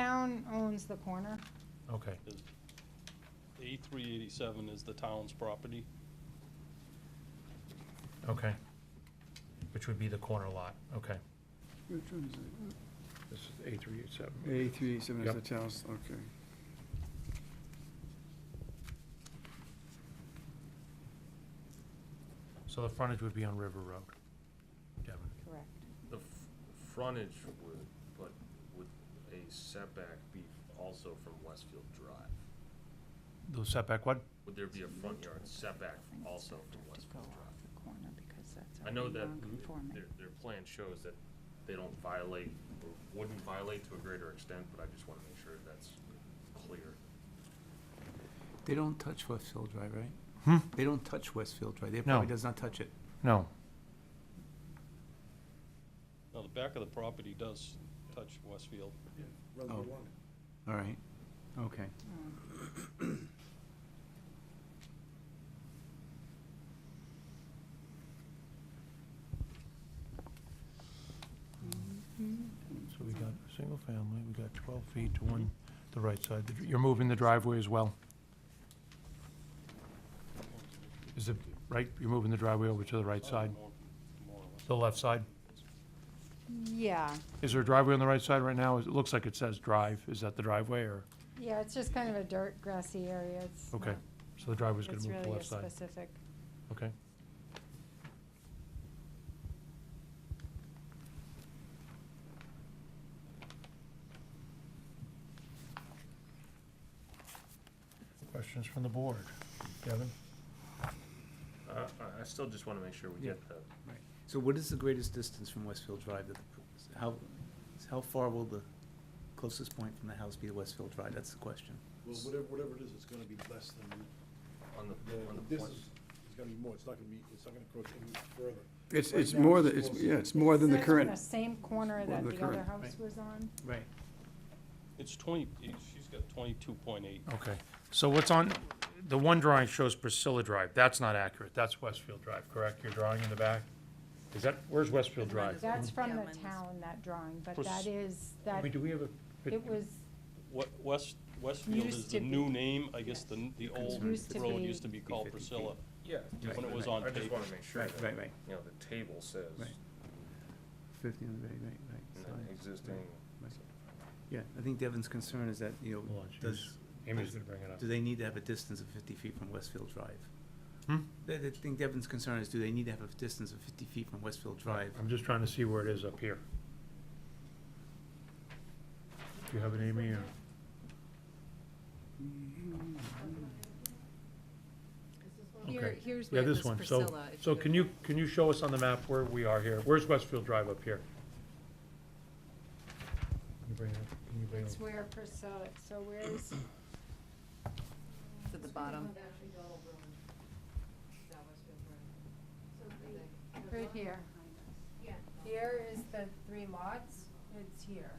town owns the corner. Okay, A three eighty-seven is the town's property. okay. Which would be the corner lot, okay. Which one is This is A three eight seven. it? A three eight seven is the Yep. town's, okay. So the frontage would be on River Road, Devin. Correct. The f- frontage would, but would a setback be also from Westfield Drive? The setback, what? Would there be a front yard setback also from Westfield Drive? the corner because that's I know that their, their plan shows that they don't violate, or wouldn't violate to a greater extent, but I just wanna make sure that's clear. They don't touch Westfield Drive, right? Hmm? They don't touch Westfield Drive. They No. probably does not touch it. No, Now, the back of the property does touch Westfield. Oh. All right, okay. so we got a single family, we got twelve feet to one, the right side. The dr- You're moving the driveway as well? Is it, right, you're moving the driveway over to the right side, More- more or less. the left side? Yeah, Is there a driveway on the right side right now? It looks like it says drive. Is that the driveway or, yeah, it's just kind of a dirt grassy area. It's okay, not- so the driveway's gonna It's move to the really a left side, specific, okay? Questions from the board? Kevin? Uh, I, I still just wanna make sure we Yeah. get the, So what is the greatest distance from Westfield Drive? that the- How, how far will the closest point from the house be to Westfield Drive? That's the question. Well, whatever, whatever it is, it's gonna be less than, on the, on the- the this plan. is, it's gonna be more, it's not gonna be, it's not gonna approach any further. It's, Right it's now, more it's than, it's, closer. yeah, it's more than the It's current. The same corner More that than the the other current, house right. was on. Right. It's twenty, she's got twenty-two point eight. Okay, so what's on, the one drawing shows Priscilla Drive. That's not accurate. That's Westfield Drive, correct? Your drawing in the back? Is that, where's Westfield Drive? That's from Yeah, the mine was- town, that drawing, but Was- that is, that, We- Do we have a? pic- it was, What, West, Westfield is Used the to new be. name, I guess the, n- the old Used to road be. used to be called 50 feet. Priscilla. Yeah, just When it the- was on I just paper. wanna make sure Right, right, that, right, you know, the table says, Right. fifty, right, right, right. and Sorry. then existing, Right. Yeah, I think Devin's concern is that, you know, Hold on, she's- does, Amy's gonna bring it up. do they need to have a distance of fifty feet from Westfield Drive? Hmm? I I think Devin's concern is, do they need to have a distance of fifty feet from Westfield Drive? I'm just trying to see where it is up here. Do you have it, Amy, or? Here, Okay. here's Yeah, where it this was one, so, Priscilla. if so can you, can you show us on the map where we are here? Where's Westfield Drive up here? Can you bring it up? Can you bring it it's up? where Priscilla, so where's? To the bottom. Right here. Here is the three lots, it's here.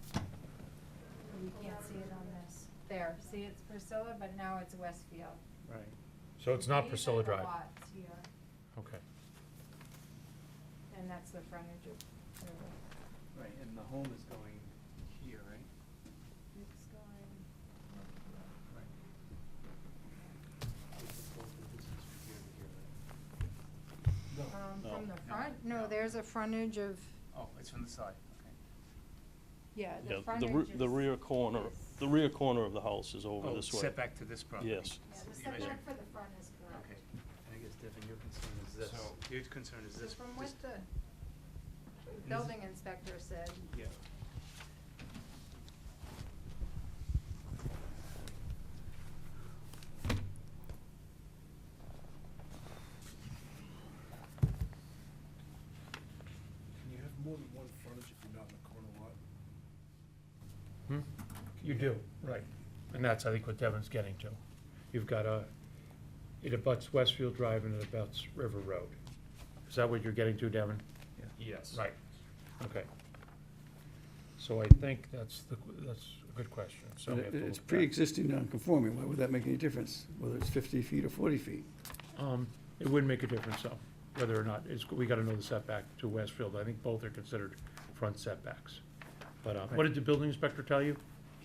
You can't see it on this. There, see, it's Priscilla, but now it's Westfield. Right. So it's not These are Priscilla the Drive? lots here, Okay. and that's the frontage of. the road. Right, and the home is going here, right? It's going- Um, No. from the front? No, there's a frontage of, Oh, it's from the side, okay. yeah, Yeah, the the, frontage re- is. the rear corner, the rear corner of the house is over this way. Setback Oh, to this property. Yes. Yeah, the You measure- setback for the front is correct. Okay, and I guess Devin, your concern is this, So- your concern is So this. from this- what the building inspector said, Yeah. Can you have more than one frontage if you're not in the corner lot? Hmm? You do, right. And that's, I think, what Devin's getting to. You've got a, it abuts Westfield Drive and it abuts River Road. Is that what you're getting to, Devin? yes. Right, okay. So I think that's the, that's a good question, so we have to It's look back. pre-existing non-conforming, why would that make any difference, whether it's fifty feet or forty feet? Um, it wouldn't make a difference, though, whether or not, it's, we gotta know the setback to Westfield, I think both are considered front setbacks. But, uh, what did the building inspector tell you?